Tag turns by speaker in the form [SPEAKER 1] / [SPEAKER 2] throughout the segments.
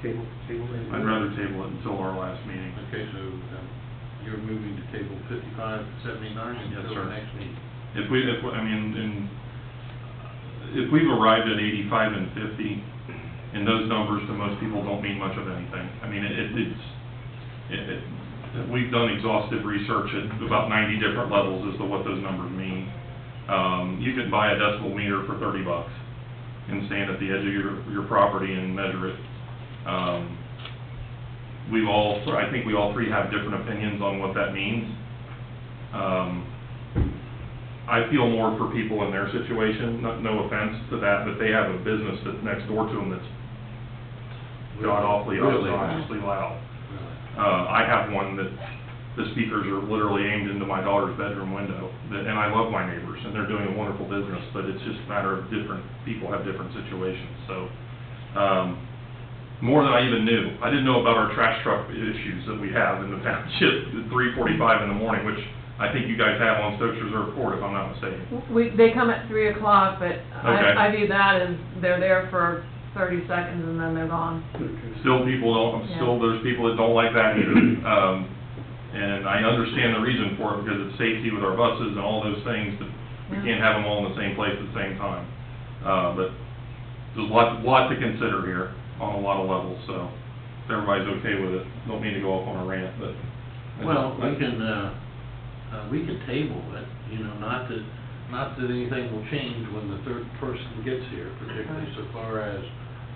[SPEAKER 1] Table, table. it.
[SPEAKER 2] I'd rather table it until our last meeting.
[SPEAKER 3] Okay, so um, you're moving to table fifty-five seventy-nine
[SPEAKER 2] Yes,
[SPEAKER 3] until
[SPEAKER 2] sir.
[SPEAKER 3] the next meeting?
[SPEAKER 2] If we, if, I mean, and if we've arrived at eighty-five and fifty, and those numbers to most people don't mean much of anything. I mean, it, it's, it, it, we've done exhaustive research at about ninety different levels as to what those numbers mean. Um, you can buy a decibel meter for thirty bucks and stand at the edge of your, your property and measure it. Um, we've all, I think we all three have different opinions on what that means. Um, I feel more for people in their situation, no, no offense to that, but they have a business that's next door to them that's god awfully
[SPEAKER 3] Really?
[SPEAKER 2] obnoxiously loud.
[SPEAKER 3] Really?
[SPEAKER 2] Uh, I have one that the speakers are literally aimed into my daughter's bedroom window, that- and I love my neighbors, and they're doing a wonderful business, but it's just a matter of different, people have different situations, so, um, more than I even knew. I didn't know about our trash truck issues that we have in the township at three forty-five in the morning, which I think you guys have on Stokes Reserve Court, if I'm not mistaken.
[SPEAKER 4] We, they come at three o'clock, but
[SPEAKER 2] Okay.
[SPEAKER 4] I, I view that as they're there for thirty seconds and then they're gone.
[SPEAKER 1] Okay.
[SPEAKER 2] Still people don't,
[SPEAKER 4] Yeah.
[SPEAKER 2] still there's people that don't like that either. Um, and I understand the reason for it because it's safety with our buses and all those things, but we can't
[SPEAKER 4] Yeah.
[SPEAKER 2] have them all in the same place at the same time. Uh, but there's a lot, lot to consider here on a lot of levels, so if everybody's okay with it, don't mean to go off on a rant, but. I just-
[SPEAKER 3] Well, we can, uh, uh, we can table it, you know, not that, not that anything will change when the third person gets here, particularly so far as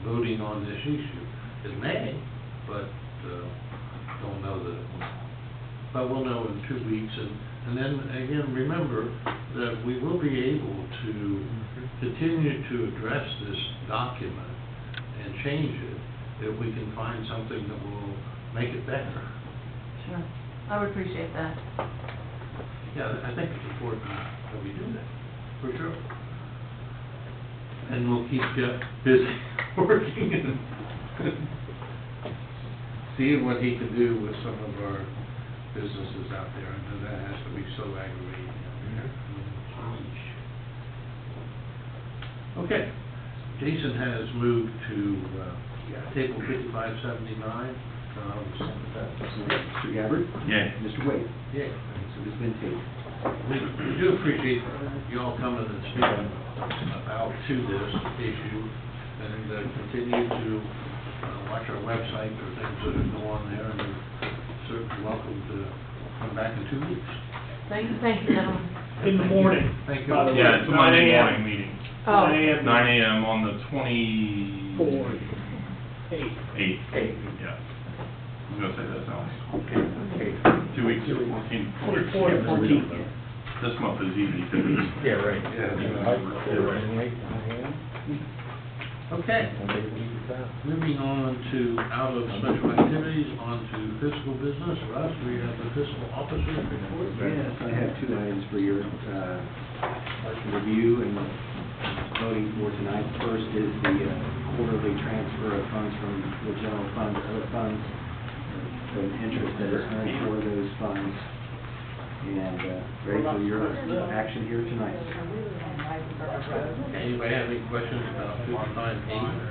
[SPEAKER 3] voting on this issue. It may, but, uh, don't know that, it will. but we'll know in two weeks, and, and then, again, remember that we will be able to continue to address this document and change it, if we can find something that will make it better.
[SPEAKER 4] Sure. I would appreciate that.
[SPEAKER 3] Yeah, I think it's important that we do that, for sure. And we'll keep Jeff busy working and seeing what he can do with some of our businesses out there. I know that has to be so aggravating. Okay, Jason has moved to uh, table fifty-five seventy-nine.
[SPEAKER 1] Mr. Gabbard?
[SPEAKER 2] Yay.
[SPEAKER 1] Mr. Wade?
[SPEAKER 3] Yeah,
[SPEAKER 1] So it's been tabled.
[SPEAKER 3] We we do appreciate you all coming and speaking about to this issue, and uh, continue to uh, watch our website for things that are going on there, and you're certainly welcome to come back in two weeks.
[SPEAKER 4] Thank you, thank you, gentlemen.
[SPEAKER 5] In the morning,
[SPEAKER 3] Thank you.
[SPEAKER 5] by the way.
[SPEAKER 2] Yeah, it's a
[SPEAKER 5] 9
[SPEAKER 2] Monday
[SPEAKER 5] a.m.
[SPEAKER 2] morning meeting,
[SPEAKER 4] Oh,
[SPEAKER 5] Nine AM.
[SPEAKER 2] nine AM on the twenty.
[SPEAKER 5] Four. Eight.
[SPEAKER 2] Eight. yeah. I was gonna say that sounds,
[SPEAKER 1] Okay,
[SPEAKER 2] two weeks, fourteen.
[SPEAKER 5] Twenty-four to fourteen.
[SPEAKER 2] This month is easy, two weeks.
[SPEAKER 1] Yeah, right.
[SPEAKER 3] Okay, moving on to out of special activities, on to fiscal business. Russ, we have the fiscal officer's report.
[SPEAKER 1] Yes, I have two items for your, uh, review and voting for tonight. First is the uh, quarterly transfer of funds from the general fund to other funds, uh, the interest that is earned for those funds. And, uh, ready for your action here tonight.
[SPEAKER 3] Anybody have any questions about fifty-five eighty?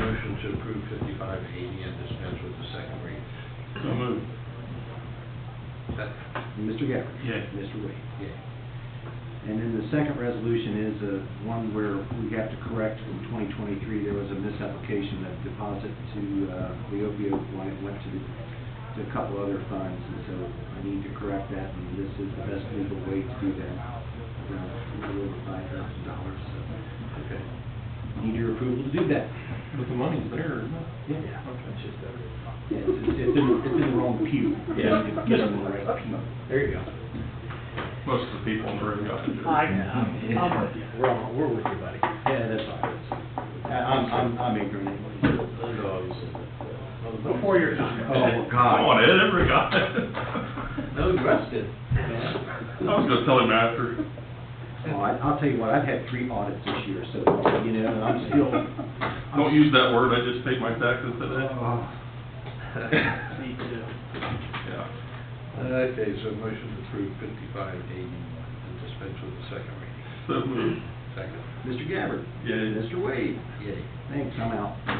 [SPEAKER 3] Motion to approve fifty-five eighty and dispense with the second reading.
[SPEAKER 2] So moved.
[SPEAKER 3] Second.
[SPEAKER 1] Mr. Gabbard?
[SPEAKER 2] Yay.
[SPEAKER 1] Mr. Wade?
[SPEAKER 3] Yeah.
[SPEAKER 1] And then the second resolution is uh, one where we have to correct from 2023, there was a misapplication of deposit to uh, the opioid one, it went to to a couple other funds, and so I need to correct that, and this is the best legal way to do that. Around a little over $5,000, so
[SPEAKER 3] Okay.
[SPEAKER 1] need your approval to do that.
[SPEAKER 2] But the money's there.
[SPEAKER 1] Yeah. Yeah, It's it's in it's in the wrong pew.
[SPEAKER 2] Yeah.
[SPEAKER 1] Get them in the right pew.
[SPEAKER 3] There you go.
[SPEAKER 2] Most of the people in the room got to do it.
[SPEAKER 1] I'm with you.
[SPEAKER 3] Um,
[SPEAKER 1] We're, all- we're with you, buddy. Yeah, that's all right. I- I'm, I'm, I'm ignorant anyway.
[SPEAKER 3] uh, Before your time.
[SPEAKER 1] Oh,
[SPEAKER 2] Come
[SPEAKER 1] God.
[SPEAKER 2] on, Ed, everybody got it.
[SPEAKER 3] No, Russ did.
[SPEAKER 2] I was gonna tell him after.
[SPEAKER 1] Well, I- I'll tell you what, I've had three audits this year, so, you know, and I'm still. I'm
[SPEAKER 2] Don't use that word, I just paid my taxes today.
[SPEAKER 1] Oh,
[SPEAKER 5] Me too.
[SPEAKER 2] Yeah.
[SPEAKER 3] Okay, so motion to approve fifty-five eighty and dispense with the second reading.
[SPEAKER 2] So moved.
[SPEAKER 3] Second.
[SPEAKER 1] Mr. Gabbard?
[SPEAKER 2] Yay.
[SPEAKER 1] Mr. Wade?
[SPEAKER 3] Yay.
[SPEAKER 1] Thanks, I'm out.